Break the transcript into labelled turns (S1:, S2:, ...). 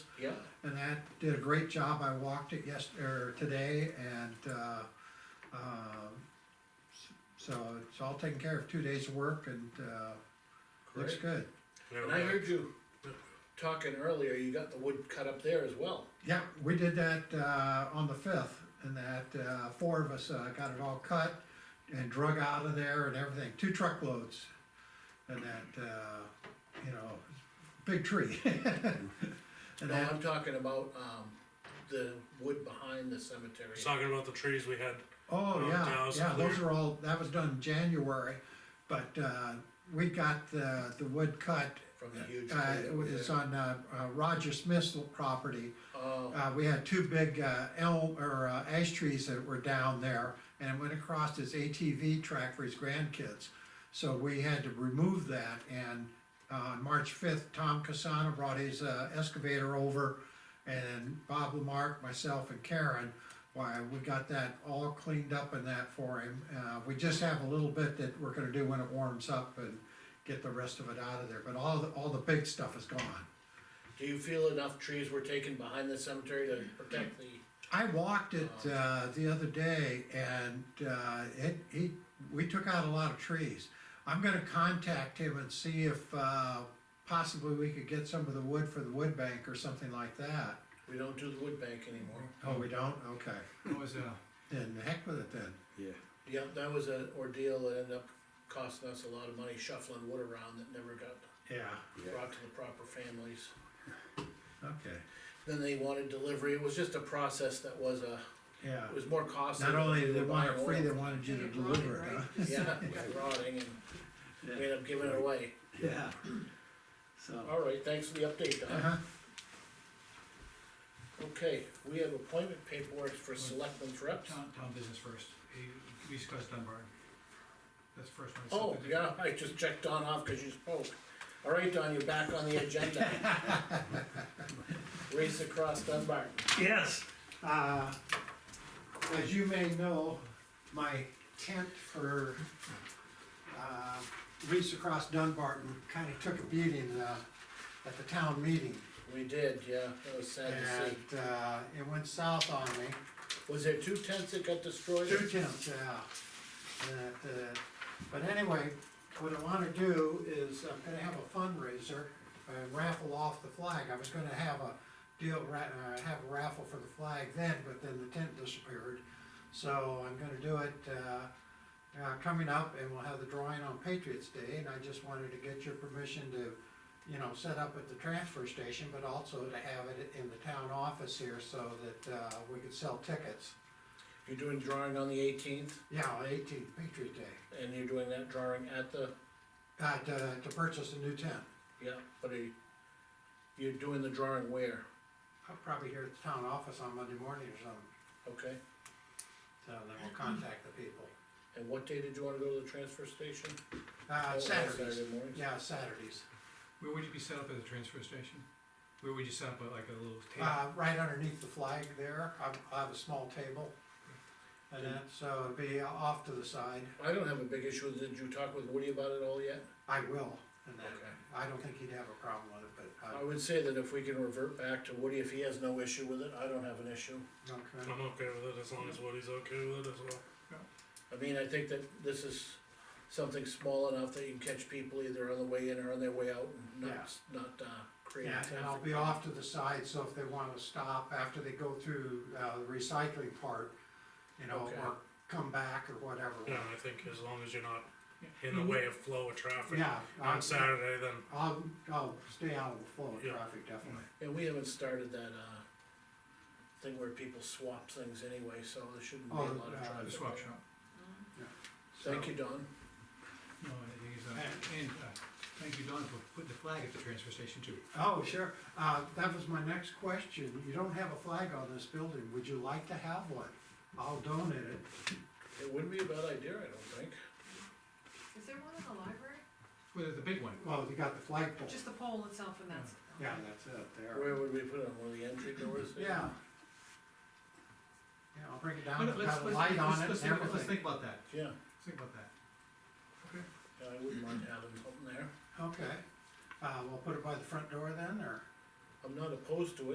S1: Yep,
S2: And that did a great job, I walked it yesterday, or today, and, uh, um, s- so it's all taken care of, two days of work and, uh, looks
S1: great.
S2: good.
S3: Now,
S1: And I
S3: uh,
S1: heard you talking earlier, you got the wood cut up there as well.
S2: Yeah, we did that, uh, on the fifth, and that, uh, four of us, uh, got it all cut and drug out of there and everything, two truckloads. And that, uh, you know, big tree. And
S1: No,
S2: that,
S1: I'm talking about, um, the wood behind the cemetery.
S3: He's talking about the trees we had.
S2: oh,
S3: Oh,
S2: yeah,
S3: Dallas
S2: yeah, those
S3: clear.
S2: are all, that was done January, but, uh, we got the, the wood cut.
S1: From the huge
S2: Uh,
S1: tree
S2: it
S1: up
S2: was
S1: there.
S2: on, uh, uh, Roger Smith's property,
S1: Oh,
S2: Uh, we had two big uh, elm or uh, ash trees that were down there and it went across his ATV track for his grandkids. So we had to remove that and uh, on March fifth, Tom Casano brought his uh, excavator over and Bob Lamarck, myself and Karen, why, we got that all cleaned up and that for him. Uh, We just have a little bit that we're gonna do when it warms up and get the rest of it out of there, but all, the all the big stuff is gone.
S1: do you feel enough trees were taken behind the cemetery to protect the,
S2: I walked it uh, the other day, and uh, it, he, we took out a lot of trees. I'm gonna contact him and see if uh, possibly we could get some of the wood for the wood bank or something like that.
S1: we don't do the wood bank anymore?
S2: Oh, we don't? Okay.
S4: It was, uh,
S2: Then heck with it then.
S5: Yeah.
S1: Yep, that was an ordeal that ended up costing us a lot of money shuffling wood around that never got
S2: Yeah.
S5: Yeah.
S1: brought to the proper families.
S2: Okay.
S1: Then they wanted delivery, it was just a process that was a,
S2: Yeah.
S1: it was more costly.
S2: Not
S1: than
S2: only did
S1: we
S2: they
S1: were
S2: want it
S1: buying
S2: free,
S1: oil.
S2: they wanted you to deliver it, huh?
S1: Yeah, it was rotting and we ended up giving it away.
S5: Yeah. So.
S1: Alright, thanks for the update, Don.
S2: Uh-huh.
S1: Okay, we have appointment paperwork for selectmen's reps.
S4: town, town business first, Eh, we discussed Dunbar. That's the first one. It's
S1: Oh,
S4: something different.
S1: yeah, I just checked Don off because you spoke. Alright, Don, you're back on the agenda. Race across Dunbar.
S5: Yes.
S2: Uh, As you may know, my tent for uh, Reefs Across Dunbarton kind of took a beating uh, at the town meeting.
S1: We did, yeah, that was sad to see.
S2: And uh, it went south on me.
S1: Was there two tents that got destroyed?
S2: Two tenths, yeah. And, uh, But anyway, what I wanna do is, I'm gonna have a fundraiser, uh, raffle off the flag, I was gonna have a deal, ra- uh, have a raffle for the flag then, but then the tent disappeared. So I'm gonna do it, uh, uh, coming up, and we'll have the drawing on Patriots Day, and I just wanted to get your permission to, you know, set up at the transfer station, but also to have it in the town office here, so that, uh, we could sell tickets.
S1: You're doing drawing on the eighteenth,
S2: Yeah, eighteenth, Patriot Day,
S1: and you're doing that drawing at the,
S2: uh, to, to purchase a new tent,
S1: yeah, but are you, you're doing the drawing where,
S2: I'll probably here at the town office on Monday morning or something,
S1: okay?
S2: so then we'll contact the people.
S1: And what day did you wanna go to the transfer station? Oh,
S2: Uh,
S1: on
S2: Saturdays,
S1: Saturday mornings?
S2: yeah, Saturdays,
S4: Where would you be set up at the transfer station? Where would you set up, like a little table?
S2: uh, right underneath the flag there, I, I have a small table. And that, so it'd be off to the side,
S1: I don't have a big issue, did you talk with Woody about it all yet?
S2: I will, and that,
S1: Okay. Oh.
S2: I don't think he'd have a problem with it, but,
S1: I
S2: uh,
S1: would say that if we can revert back to Woody, if he has no issue with it, I don't have an issue.
S2: okay,
S3: I'm okay with it as long as Woody's okay with it as well.
S1: I mean, I think that this is something small enough that you can catch people either on the way in or on their way out and
S2: Yeah.
S1: not, not, uh, create
S2: yeah,
S1: traffic.
S2: and I'll be off to the side, so if they wanna stop after they go through, uh, the recycling part, you know,
S1: Okay.
S2: or come back or whatever.
S3: Yeah, I think as long as you're not in
S4: Yeah.
S3: the way of flow of traffic
S2: Mm-hmm. Yeah. I-
S3: on Saturday, then
S2: I'll, I'll stay out of the flow of
S3: Yeah.
S2: traffic, definitely.
S1: Yeah, we haven't started that, uh, thing where people swap things anyway, so there shouldn't be a
S2: Oh,
S1: lot of
S2: uh,
S1: traffic.
S4: The swap
S1: there.
S4: shop?
S1: Thank you, Don.
S4: No, I think it's, uh, and, uh, thank you, Don, for putting the flag at the transfer station too.
S2: Oh, sure. Uh, that was my next question. You don't have a flag on this building. Would you like to have one? I'll donate it.
S1: It wouldn't be a bad idea, I don't think.
S6: Is there one in the library?
S4: Well, the big one,
S2: Well, you got the flagpole.
S6: Just the pole itself and that's.
S2: Yeah, that's it there.
S1: Where would we put it, on one of the entry doors? there?
S2: Yeah. Yeah, I'll bring it down,
S4: But
S2: put
S4: let's,
S2: a
S4: let's,
S2: light on
S4: let's,
S2: it
S4: let's,
S2: and
S4: think- let's
S2: everything.
S4: think about that,
S1: Yeah,
S4: let's think about that.
S1: yeah, I wouldn't mind having something there.
S2: Okay. Uh, we'll put it by the front door then, or?
S1: I'm not opposed to it.